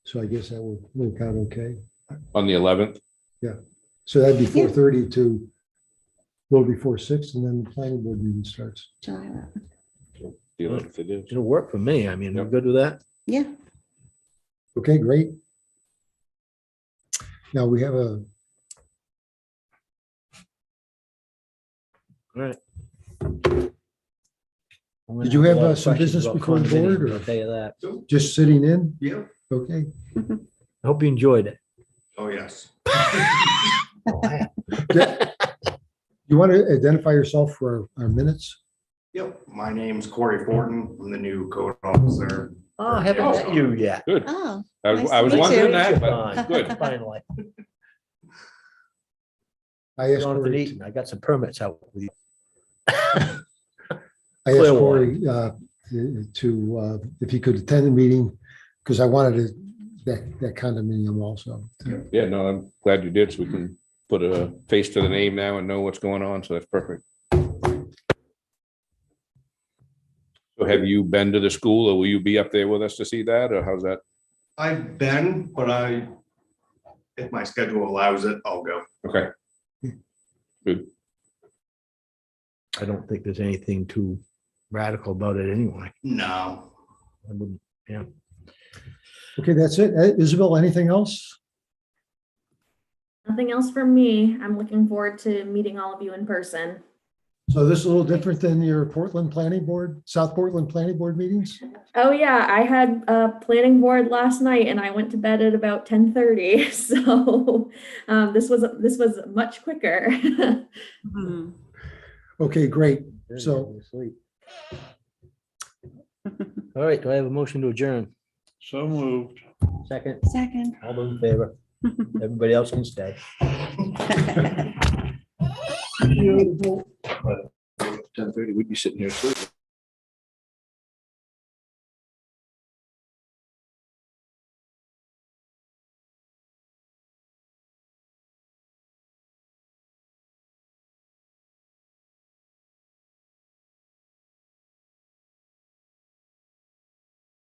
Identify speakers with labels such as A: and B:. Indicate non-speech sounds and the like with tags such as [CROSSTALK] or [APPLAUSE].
A: So I guess that would work out okay.
B: on the eleventh.
A: So that'd be
C: Yeah.
A: four thirty to a little before six, and then the planning board meeting starts.
C: July 11th.
B: The eleventh it is.
D: It'll work for me. I mean, we're
B: Yep.
D: good with that.
C: Yeah,
A: Okay, great. Now we have a,
D: All right. I'm gonna
A: Did you have,
D: a lot
A: uh,
D: of
A: some
D: questions
A: business
D: about
A: before the
D: condominiums,
A: board, or-
D: I'll tell you that.
A: just sitting in?
E: Yeah.
A: Okay,
D: I hope you enjoyed it.
E: Oh, yes.
A: Oh, you want to identify yourself for our our minutes?
E: Yep, my name's Corey Fortin. I'm the new code officer.
D: [LAUGHS] Oh, I haven't met you yet.
B: Good.
C: oh,
B: I was,
C: Nice
B: I was
C: to meet
B: wondering
C: you.
B: that,
D: Fine.
B: but
D: [LAUGHS]
B: good.
D: Finally,
A: I asked
D: Jonathan
A: Corey,
D: Eaton, I got some permits out. with you.
A: I asked
D: Clearwater.
A: Corey uh, to, uh, if he could attend the meeting, because I wanted to- that that condominium also.
B: Yeah, no, I'm glad you did. So we can put a face to the name now and know what's going on. So that's perfect. So have you been to the school or will you be up there with us to see that or how's that?
E: I've been, but I, if my schedule allows it, I'll go.
B: Okay,
D: I don't think there's anything too radical about it anyway.
E: No.
D: I wouldn't-
A: Okay, that's it. Uh, Isabel, anything else?
F: Nothing else from me. I'm looking forward to meeting all of you in person.
A: So this is a little different than your Portland Planning Board, South Portland Planning Board meetings?
F: Oh yeah, I had a planning board last night and I went to bed at about ten thirty, [LAUGHS] so um, this was, this was much quicker. [LAUGHS]
A: Okay, great.
D: Yeah,
A: So-
D: you're asleep. [LAUGHS] All right, do I have a motion to adjourn?
G: So moved.
D: Second, [LAUGHS]
C: second.
D: all those
A: [LAUGHS]
D: in favor? Everybody else can stay.
B: ten thirty, we'd be sitting here.